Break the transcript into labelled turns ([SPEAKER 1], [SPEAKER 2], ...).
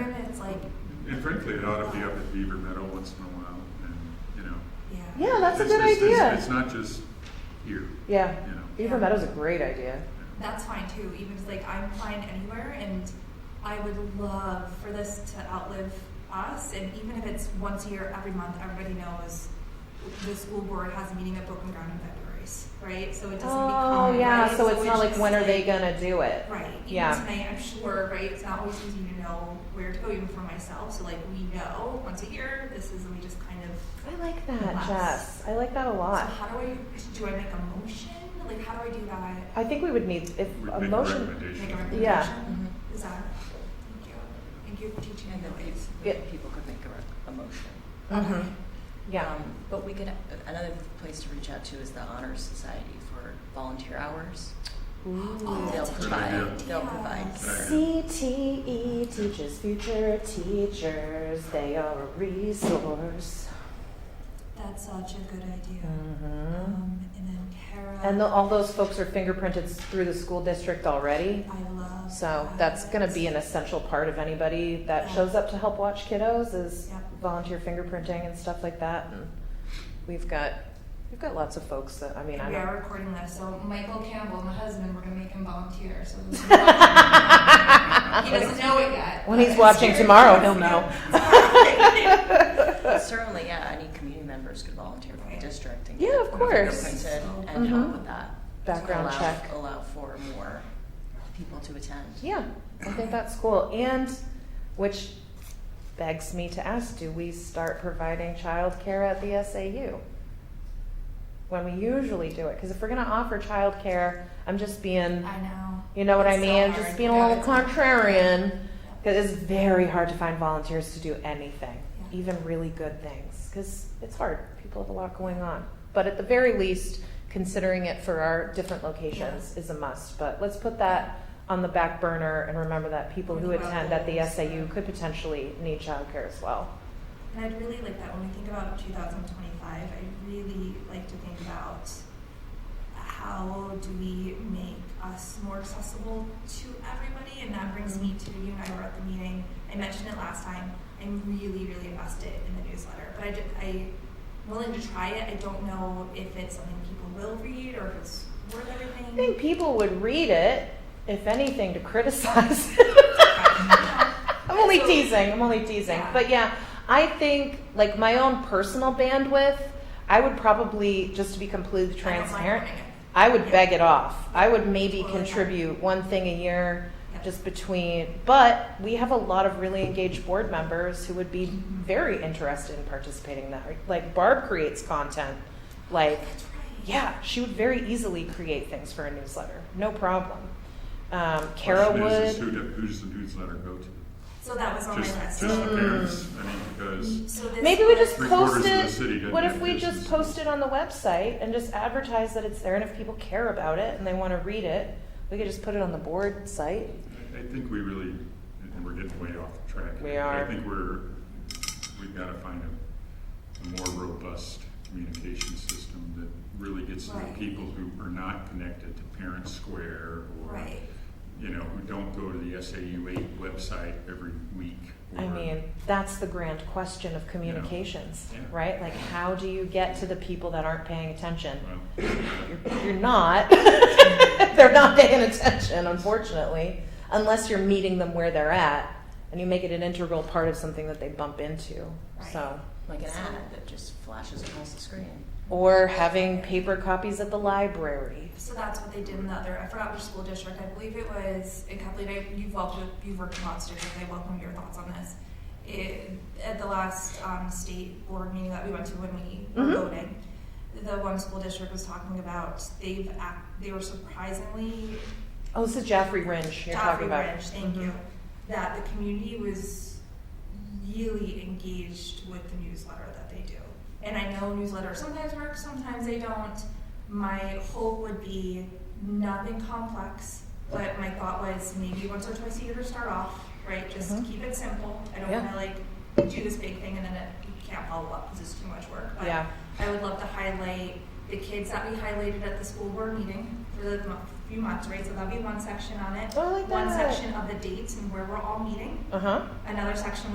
[SPEAKER 1] And it's like,
[SPEAKER 2] And frankly, it ought to be up at Beaver Meadow once in a while, and, you know.
[SPEAKER 1] yeah.
[SPEAKER 3] Yeah, that's a
[SPEAKER 2] it's-
[SPEAKER 3] good
[SPEAKER 2] it's- it's-
[SPEAKER 3] idea.
[SPEAKER 2] It's not just here,
[SPEAKER 3] Yeah,
[SPEAKER 2] you know.
[SPEAKER 3] Beaver Meadows is a great idea.
[SPEAKER 1] That's fine too, even if like I'm fine anywhere and I would love for this to outlive us and even if it's once a year, every month, everybody knows the school board has a meeting at Broken Ground in Februaries, right? So it doesn't
[SPEAKER 3] Oh
[SPEAKER 1] become
[SPEAKER 3] yeah,
[SPEAKER 1] right?
[SPEAKER 3] so it's not like
[SPEAKER 1] just,
[SPEAKER 3] when are they gonna do it?
[SPEAKER 1] Right. Even
[SPEAKER 3] Yeah.
[SPEAKER 1] tonight, I'm sure, right? It's not always easy to know where to go, even for myself. So like we know once a year, this is we just kind of
[SPEAKER 3] I like that,
[SPEAKER 1] Lots.
[SPEAKER 3] Jess. I like that a
[SPEAKER 1] So
[SPEAKER 3] lot.
[SPEAKER 1] how do I, do I make a motion? Like, how do I do that?
[SPEAKER 3] I think we would need if
[SPEAKER 2] We
[SPEAKER 3] a
[SPEAKER 2] make
[SPEAKER 1] Make
[SPEAKER 2] a
[SPEAKER 3] motion.
[SPEAKER 1] a
[SPEAKER 2] recommendation.
[SPEAKER 1] recommendation? Mm-hmm.
[SPEAKER 3] Yeah.
[SPEAKER 1] Is that, thank you, thank you for teaching me
[SPEAKER 4] And
[SPEAKER 1] that
[SPEAKER 4] that
[SPEAKER 1] ways.
[SPEAKER 3] Yeah.
[SPEAKER 4] if people could make a, rec- a motion.
[SPEAKER 3] Mhm. Yeah.
[SPEAKER 4] Um, But we could, another place to reach out to is the Honor Society for volunteer hours.
[SPEAKER 1] Oh,
[SPEAKER 3] Ooh.
[SPEAKER 4] They'll
[SPEAKER 1] that's a good
[SPEAKER 4] provide,
[SPEAKER 1] idea.
[SPEAKER 4] they'll provide.
[SPEAKER 2] Good idea.
[SPEAKER 3] CTE teaches E future teachers. They are a resource.
[SPEAKER 1] That's such a good idea.
[SPEAKER 3] hmm
[SPEAKER 1] Um, and then Tara.
[SPEAKER 3] And the, all those folks are fingerprinted through the school district already.
[SPEAKER 1] I love.
[SPEAKER 3] So that's going to be an essential part of anybody that shows up to help watch kiddos is
[SPEAKER 1] Yeah.
[SPEAKER 3] volunteer fingerprinting and stuff like that. And we've got we've got lots of folks that I mean I
[SPEAKER 1] We
[SPEAKER 3] don't.
[SPEAKER 1] are recording this, so Michael Campbell, my husband, we're gonna make him volunteer, so. He doesn't know it yet.
[SPEAKER 3] When he's
[SPEAKER 1] but-
[SPEAKER 3] watching tomorrow, he'll know.
[SPEAKER 4] Certainly, yeah, any community members could volunteer for the district and.
[SPEAKER 3] Yeah, of
[SPEAKER 4] get
[SPEAKER 3] course.
[SPEAKER 4] fingerprinted And help
[SPEAKER 1] Mm-hmm.
[SPEAKER 3] Mhm.
[SPEAKER 4] with that.
[SPEAKER 3] Background
[SPEAKER 4] Allow-
[SPEAKER 3] check.
[SPEAKER 4] Allow for more people to attend.
[SPEAKER 3] Yeah, I think that's cool. And which begs me to ask, do we start providing childcare at the SAU? When we usually do it, because if we're gonna offer childcare, I'm just being,
[SPEAKER 1] I know.
[SPEAKER 3] you know what I
[SPEAKER 1] It's so
[SPEAKER 3] mean? I'm
[SPEAKER 1] hard.
[SPEAKER 3] just being a
[SPEAKER 1] Yeah,
[SPEAKER 3] little
[SPEAKER 1] it's hard.
[SPEAKER 3] contrarian.
[SPEAKER 1] Yeah.
[SPEAKER 3] Because it's very hard to find volunteers to do anything,
[SPEAKER 1] Yeah.
[SPEAKER 3] even really good things, because it's hard. People have a lot going on. But at the very least, considering it for our different locations is a must. But let's put that on the back burner and remember that people who
[SPEAKER 1] Think about
[SPEAKER 3] attend at the
[SPEAKER 1] goals.
[SPEAKER 3] SAU could potentially need childcare as well.
[SPEAKER 1] And I'd really like that when we think about 2025, I'd really like to think about how do we make us more accessible to everybody? And that brings me to you and I were at the meeting. I mentioned it last time. I'm really, really invested in the newsletter, but I, ju- I willing to try it. I don't know if it's something people will read or if it's worth everything.
[SPEAKER 3] I think people would read it, if anything, to criticize. I'm only
[SPEAKER 1] So-
[SPEAKER 3] teasing. I'm only teasing.
[SPEAKER 1] Yeah.
[SPEAKER 3] But yeah, I think like my own personal bandwidth, I would probably just to be completely
[SPEAKER 1] I don't mind
[SPEAKER 3] transparent,
[SPEAKER 1] learning it.
[SPEAKER 3] I would
[SPEAKER 1] Yeah.
[SPEAKER 3] beg it off. I would maybe
[SPEAKER 1] Totally.
[SPEAKER 3] contribute one thing a year
[SPEAKER 1] Yeah.
[SPEAKER 3] just between, but we have a lot of really engaged board members who would be very interested in participating in that. Like Barb creates content. Like
[SPEAKER 1] That's right.
[SPEAKER 3] yeah, she would very easily create things for a newsletter. No problem. Um, Kara
[SPEAKER 2] Question is, is who
[SPEAKER 3] would.
[SPEAKER 2] do- who's the newsletter go to?
[SPEAKER 1] So that was on
[SPEAKER 2] Just,
[SPEAKER 1] Oh, my list.
[SPEAKER 2] just the
[SPEAKER 3] Mm.
[SPEAKER 2] parents, I mean, because,
[SPEAKER 1] so this
[SPEAKER 3] Maybe we just
[SPEAKER 1] was-
[SPEAKER 2] Three quarters
[SPEAKER 3] post
[SPEAKER 2] of the
[SPEAKER 3] it.
[SPEAKER 2] city didn't
[SPEAKER 3] what if
[SPEAKER 2] have
[SPEAKER 3] we just
[SPEAKER 2] business.
[SPEAKER 3] post it on the website and just advertise that it's there? And if people care about it and they want to read it, we could just put it on the board site.
[SPEAKER 2] I- I think we really, and we're getting way off track.
[SPEAKER 3] We
[SPEAKER 2] but
[SPEAKER 3] are.
[SPEAKER 2] I think we're, we've got to find a, a more robust communication system that really gets to the
[SPEAKER 1] Right.
[SPEAKER 2] people who are not connected to Parent Square or
[SPEAKER 1] Right.
[SPEAKER 2] you know, who don't go to the SAU eight website every week.
[SPEAKER 3] I
[SPEAKER 2] or-
[SPEAKER 3] mean, that's the grand question of communications,
[SPEAKER 2] Yeah.
[SPEAKER 3] right? Like, how do you get to the people that aren't paying attention?
[SPEAKER 2] Well,
[SPEAKER 3] You're, you're not. they're not paying attention, unfortunately, unless you're meeting them where they're at and you make it an integral part of something that they bump into. So,
[SPEAKER 4] Like an ad that just flashes across the screen.
[SPEAKER 3] or having paper copies at the library.
[SPEAKER 1] So that's what they did in the other. I forgot which school district. I believe it was in Copley. I- You've worked with, you've worked in lots of districts. I welcome your thoughts on this. It, at the last um, state board meeting that we went to when we
[SPEAKER 3] Mhm.
[SPEAKER 1] were voting, the one school district was talking about they've act, they were surprisingly
[SPEAKER 3] Oh, this is Jaffrey Ringe you're
[SPEAKER 1] Joffrey
[SPEAKER 3] talking about.
[SPEAKER 1] Ridge, thank you. That the community was really engaged with the newsletter that they do. And I know newsletters sometimes work, sometimes they don't. My hope would be nothing complex, but my thought was maybe once or twice a year to start off, right? Just
[SPEAKER 3] Mhm.
[SPEAKER 1] keep it simple. I don't
[SPEAKER 3] Yeah.
[SPEAKER 1] wanna like do this big thing and then it you can't follow up because it's too much work. But
[SPEAKER 3] Yeah.
[SPEAKER 1] I would love to highlight the kids that we highlighted at the school board meeting for the month- few months, right? So that'll be one section on it.
[SPEAKER 3] Oh, I like
[SPEAKER 1] One
[SPEAKER 3] that.
[SPEAKER 1] section of the dates and where we're all meeting.
[SPEAKER 3] Uh huh.
[SPEAKER 1] Another section